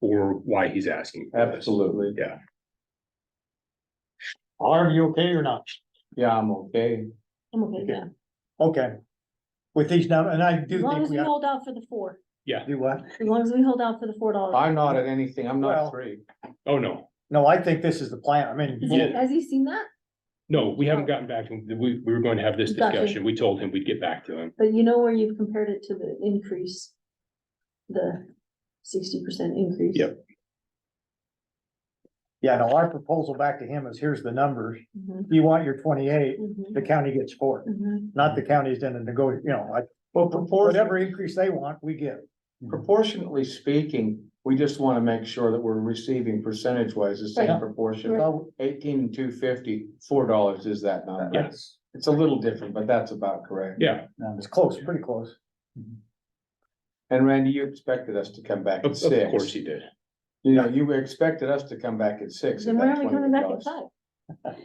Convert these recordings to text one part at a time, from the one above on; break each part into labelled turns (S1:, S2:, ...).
S1: or why he's asking. for this.
S2: Absolutely.
S1: Yeah.
S3: Are you okay or not?
S2: Yeah, I'm okay.
S4: I'm okay with
S3: Okay.
S4: that.
S3: Okay. With these numbers, and I
S4: As
S3: do
S4: long
S3: think
S4: as
S3: we
S4: we
S3: have
S4: hold out for the four,
S3: to do what?
S4: as long as we hold out for the four dollars.
S2: I'm not at anything. I'm
S3: Well-
S2: not free.
S1: Oh, no,
S3: No, I think this is the plan. I
S4: Has
S3: mean,
S4: he-
S1: Yeah.
S4: has he seen that?
S1: no, we haven't gotten back to him. We, we were going to have this
S4: Gotcha.
S1: discussion. We told him we'd get back to him.
S4: But you know where you've compared it to the increase? The sixty percent increase?
S1: Yep.
S3: yeah, no, our proposal back to him is here's the numbers.
S4: Mhm,
S3: You want your twenty-eight,
S4: mhm,
S3: the county gets four,
S4: mhm.
S3: not the county's in the nego, you know, like,
S2: Well, proportionately,
S3: whatever increase they want, we give.
S2: proportionately speaking, we just want to make sure that we're receiving percentage wise the
S3: Right.
S2: same proportion.
S3: So,
S2: Eighteen and two fifty, four dollars is that number.
S1: Yes.
S2: It's a little different, but that's about correct.
S1: Yeah,
S3: It's close, pretty close.
S2: And Randy, you expected us to come back
S1: of,
S2: at
S1: of course
S2: six.
S1: he did.
S2: You know, you expected us to come back at six.
S4: Then
S2: at
S4: why
S2: that
S4: are we coming back
S2: $28.
S4: at five?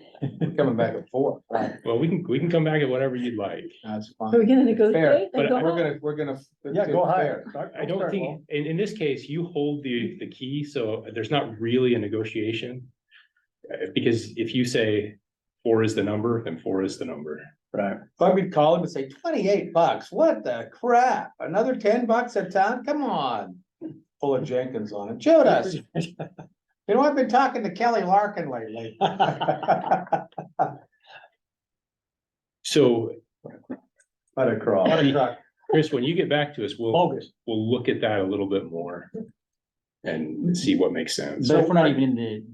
S2: We're Coming back at four.
S1: Well, we can, we can come back at whatever you'd like.
S2: That's
S4: Are we
S2: fine.
S4: gonna
S2: Fair,
S4: negotiate?
S2: but
S4: and go
S2: we're
S4: up?
S2: gonna, we're gonna.
S3: Yeah, go higher.
S1: I don't
S3: Start
S1: think, in, in this case, you hold the, the key, so there's not really a negotiation. Uh, because if you say four is the number, then four is the number.
S3: Right.
S2: If I would call him and say twenty-eight bucks, what the crap, another ten bucks a ton, come on. Full of Jenkins on it, Judas, you know, I've been talking to Kelly Larkin lately. What
S1: So,
S2: a crawl.
S1: Chris, when you get back to us, we'll,
S3: Bogus.
S1: we'll look at that a little bit more. And see what makes sense.
S5: But if we're not even in the,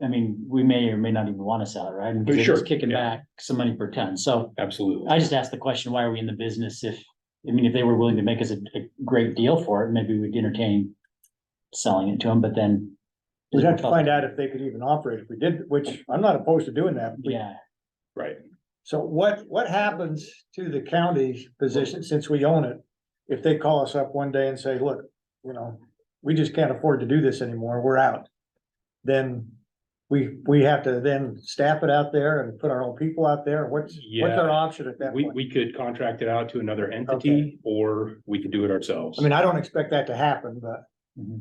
S5: the, I mean, we may or may not even want to sell it, right? Because
S1: Sure,
S5: it's Kicking
S1: yeah.
S5: back some money per ton. So
S1: Absolutely.
S5: I just asked the question, why are we in the business if, I mean, if they were willing to make us a, a great deal for it, maybe we'd entertain selling it to them, but then.
S3: We'd have to find out if they could even operate if we did, which I'm not opposed to doing that. We-
S5: Yeah,
S1: Right.
S3: So what, what happens to the county's position since we own it? If they call us up one day and say, look, you know, we just can't afford to do this anymore, we're out. Then we, we have to then staff it out there and put our own people out there. What's, what's our
S1: Yeah.
S3: option at that
S1: We,
S3: point?
S1: we could contract it out to another entity or we could do it ourselves.
S3: I mean, I don't expect that to happen, but
S5: Mhm.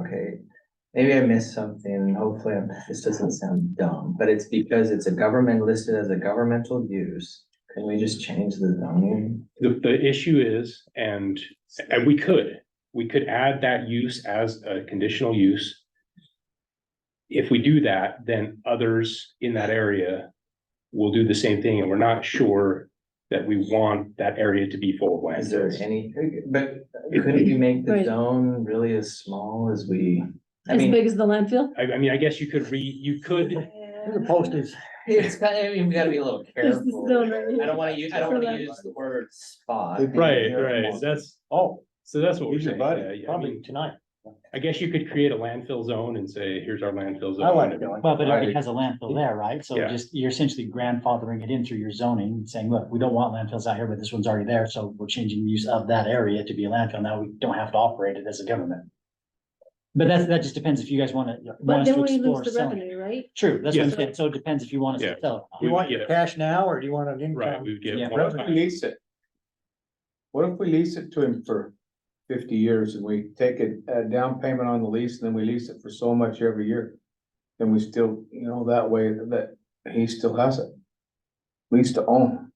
S6: Okay, maybe I missed something, and hopefully I'm- this doesn't sound dumb, but it's because it's a government listed as a governmental use. Can we just change the zoning?
S1: The, the issue is, and, and we could, we could add that use as a conditional use. If we do that, then others in that area will do the same thing, and we're not sure that we want that area to be full of
S6: Is there
S1: landfills.
S6: any, but couldn't we make the
S4: Right.
S6: zone really as small as we? I
S4: As
S6: mean,
S4: big as the landfill?
S1: I, I mean, I guess you could re, you could,
S3: the postage,
S6: it's kind of, I mean, we gotta be a little
S4: There's this
S6: careful.
S4: zone right
S6: I
S4: here.
S6: don't wanna use, I don't
S4: So
S6: wanna
S4: that-
S6: use the word spot.
S1: right, right, that's,
S3: oh,
S1: so that's what we're
S3: he's your
S1: saying. Yeah,
S3: buddy,
S1: yeah, I
S3: probably
S1: mean,
S3: tonight.
S1: I guess you could create a landfill zone and say, here's our landfill zone.
S3: I like it.
S5: well, but it already
S2: Right.
S5: has a landfill there, right? So
S1: Yeah.
S5: just, you're essentially grandfathering it in through your zoning, and saying, look, we don't want landfills out here, but this one's already there, so we're changing the use of that area to be a landfill. Now we don't have to operate it as a government. But that's, that just depends if you guys want to.
S4: But then we lose the revenue, right?
S5: True, that's what I'm
S1: Yes.
S5: saying, so it depends if you want us
S1: Yeah.
S5: to sell. it.
S3: You want your
S1: Yeah.
S3: cash now or do you want an
S1: Right,
S3: income?
S1: we would get.
S5: Yeah.
S2: What if we lease it? What if we lease it to him for fifty years and we take a, a down payment on the lease and then we lease it for so much every year? Then we still, you know, that way that he still has it. Lease to own.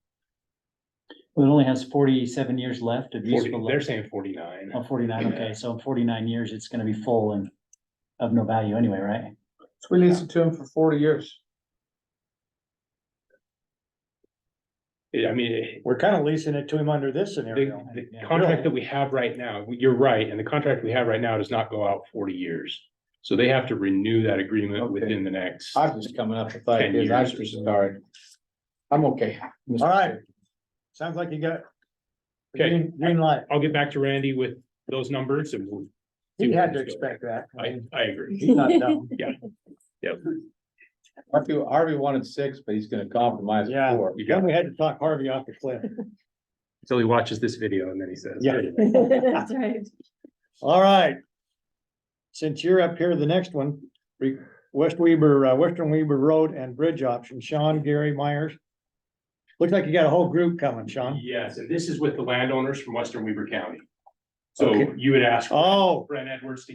S5: It only has forty-seven years left of
S1: 40
S5: useful
S1: They're
S5: life.
S1: saying forty-nine.
S5: Oh, forty-nine, okay, so in forty-nine years, it's gonna be full and of no value anyway, right?
S2: So we lease it to him for forty years.
S1: Yeah, uh, I mean,
S3: We're kind of leasing it to him under this
S1: the,
S3: scenario.
S1: the
S5: Yeah.
S1: contract that we have right now, you're right, and the contract we have right now does not go out forty years. So they have to renew that agreement
S2: Okay.
S1: within the next.
S2: I'm just coming up with
S1: 10
S2: ideas. I'm
S1: years or
S2: just,
S1: so.
S2: all right. I'm okay. Mr.
S3: All right. Sounds like you got. the
S1: Okay.
S3: Green, green light.
S1: I'll get back to Randy with those numbers and we'll.
S3: He had to expect that. I
S1: I,
S3: mean,
S1: I agree.
S3: He's not dumb.
S2: Harvey, Harvey wanted six, but he's gonna compromise
S3: Yeah.
S2: four.
S1: You got
S3: Then we had to talk Harvey off the cliff.
S1: Until he watches this video and then he says.
S3: Yeah.
S4: That's right.
S3: All right. Since you're up here, the next one, re- West Weber, uh, Western Weber Road and Bridge Option, Sean, Gary Myers. Looks like you got a whole group coming, Sean.
S1: Yes, and this is with the landowners from Western Weaver County. So
S3: Okay.
S1: you would ask
S3: Oh.
S1: Brent Edwards to